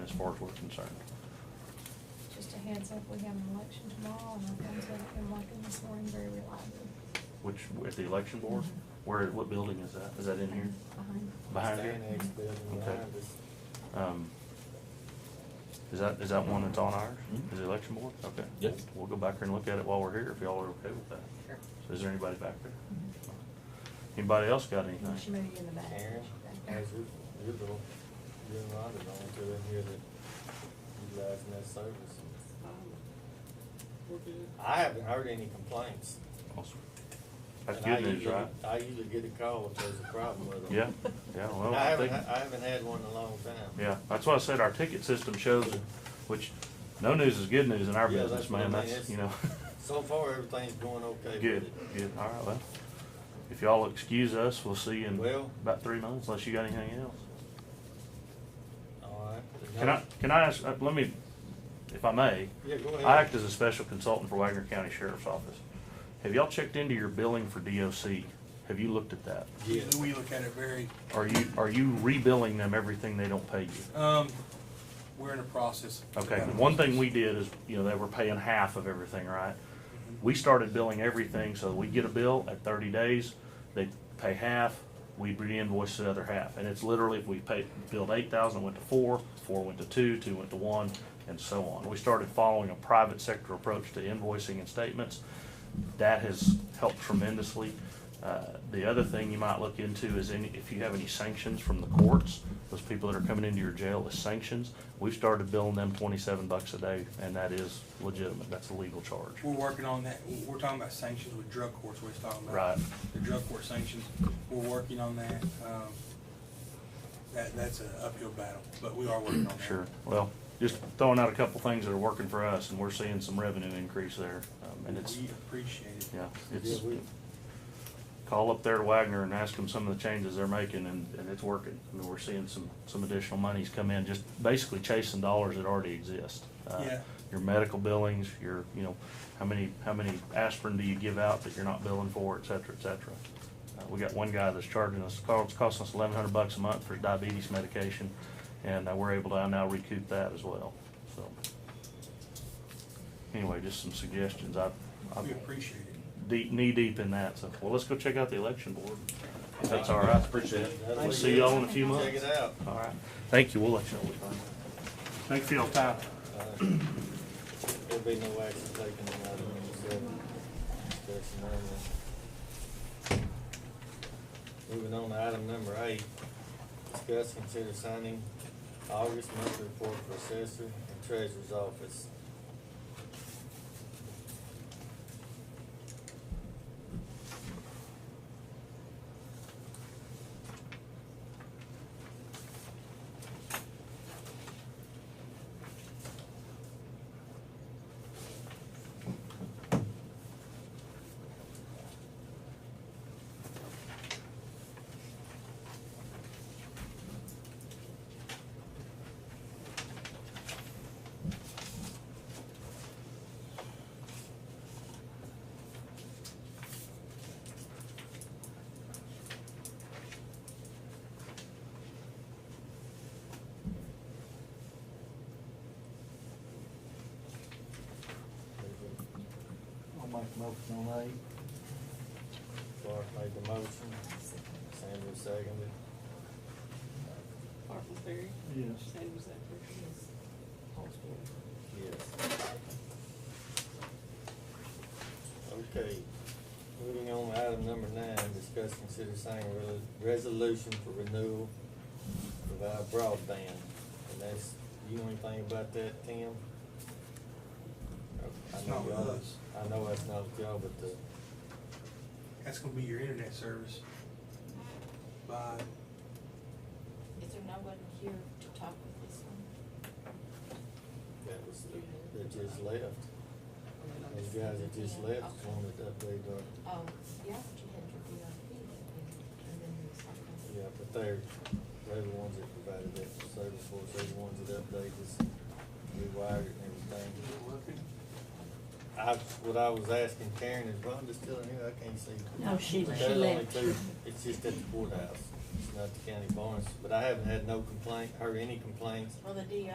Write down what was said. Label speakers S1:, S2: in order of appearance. S1: as far as we're concerned.
S2: Just a heads up, we have an election tomorrow, and our phones haven't been working this morning very reliably.
S1: Which, at the election board, where, what building is that? Is that in here?
S2: Behind.
S1: Behind here?
S3: Annex building
S1: Okay.
S3: behind us.
S1: Um, Is that, is that one that's on ours?
S3: Mm-hmm.
S1: Is the election board? Okay.
S4: Yep.
S1: We'll go back there and look at it while we're here, if y'all are okay with that.
S5: Sure.
S1: So is there anybody back there? Anybody else got anything?
S2: She moved you in the back.
S3: Karen,
S2: Back there.
S3: as your, your little, your lot is on to in here that utilizing that service.
S4: We're good.
S3: I haven't heard any complaints.
S1: Awesome. That's
S3: And I
S1: good news,
S3: usually-
S1: right?
S3: I usually get a call if there's a problem with them.
S1: Yeah, yeah, well,
S3: And I
S1: I
S3: haven't,
S1: think,
S3: ha- I haven't had one in a long time.
S1: yeah, that's why I said our ticket system shows, which, no news is good news in our
S3: Yeah,
S1: business,
S3: that's what I
S1: man,
S3: mean,
S1: that's,
S3: it's-
S1: you know.
S3: So far, everything's going okay with
S1: Good,
S3: it.
S1: good, all right, well, if y'all excuse us, we'll see you in
S3: Well-
S1: about three months, unless you got anything else.
S3: All right.
S1: Can I, can I ask, uh, let me, if I may,
S3: Yeah, go ahead.
S1: I act as a special consultant for Wagner County Sheriff's Office. Have y'all checked into your billing for DOC? Have you looked at that?
S3: Yeah.
S6: We look at it very,
S1: Are you, are you rebilling them everything they don't pay you?
S6: um, we're in a process.
S1: Okay, one thing we did is, you know, they were paying half of everything, right? We started billing everything, so we get a bill at thirty days, they pay half, we reinvoice the other half. And it's literally, if we paid, billed eight thousand, it went to four, four went to two, two went to one, and so on. We started following a private sector approach to invoicing and statements. That has helped tremendously. Uh, The other thing you might look into is any, if you have any sanctions from the courts, those people that are coming into your jail as sanctions, we've started billing them twenty-seven bucks a day, and that is legitimate, that's a legal charge.
S6: We're working on that, we're talking about sanctions with drug courts, what he's talking about.
S1: Right.
S6: The drug court sanctions, we're working on that, um, that, that's an uphill battle, but we are working on that.
S1: Sure, well, just throwing out a couple things that are working for us, and we're seeing some revenue increase there, um, and it's,
S6: We appreciate it.
S1: yeah,
S3: Yeah,
S1: it's,
S3: we,
S1: call up there to Wagner and ask them some of the changes they're making, and, and it's working. I mean, we're seeing some, some additional monies come in, just basically chasing dollars that already exist. Uh,
S6: Yeah.
S1: Your medical billings, your, you know, how many, how many aspirin do you give out that you're not billing for, et cetera, et cetera. Uh, we got one guy that's charging us, it's costing us eleven hundred bucks a month for his diabetes medication, and uh, we're able to now recoup that as well, so. Anyway, just some suggestions. I, I
S6: We appreciate it.
S1: deep, knee deep in that. So, well, let's go check out the election board. If that's all right. Appreciate it. We'll see y'all in a few
S3: check it
S1: months.
S3: out.
S1: All right. Thank you. We'll let you know. what we find. Thanks for your time.
S3: Uh, There'll be no action taken on that one, so that's none of them. Moving on to item number eight, discuss, consider signing August monthly report for assessor and treasurer's office.
S7: I'll make a motion on eight.
S3: Clark made the motion, Sandra seconded.
S5: Martin Ferry,
S7: Yes.
S5: Sam Zephyr.
S3: Yes. Okay, moving on to item number nine, discuss, consider signing a re- resolution for renewal of our broadband. And that's, you know anything about that, Tim? I- I
S6: It's
S3: know
S6: not with
S3: y'all-
S6: us.
S3: I know that's not with y'all, but the,
S6: That's gonna be your internet service by,
S8: Is there no one here to talk with this one?
S3: that was, the- that just left. Those guys that just left wanted to update our,
S8: Oh, yeah, but you had your VIP, and then there was something.
S3: yeah, but they're, they're the ones that provided that service for us, they're the ones that updated us, rewired it and everything.
S6: is it working?
S3: I, what I was asking Karen, is Rhonda still in here? I can't see.
S5: No, she,
S3: There's
S5: she
S3: only
S5: left.
S3: two. It's just at the courthouse, it's not the county barns, but I haven't had no complaint, heard any complaints
S8: Well, the DA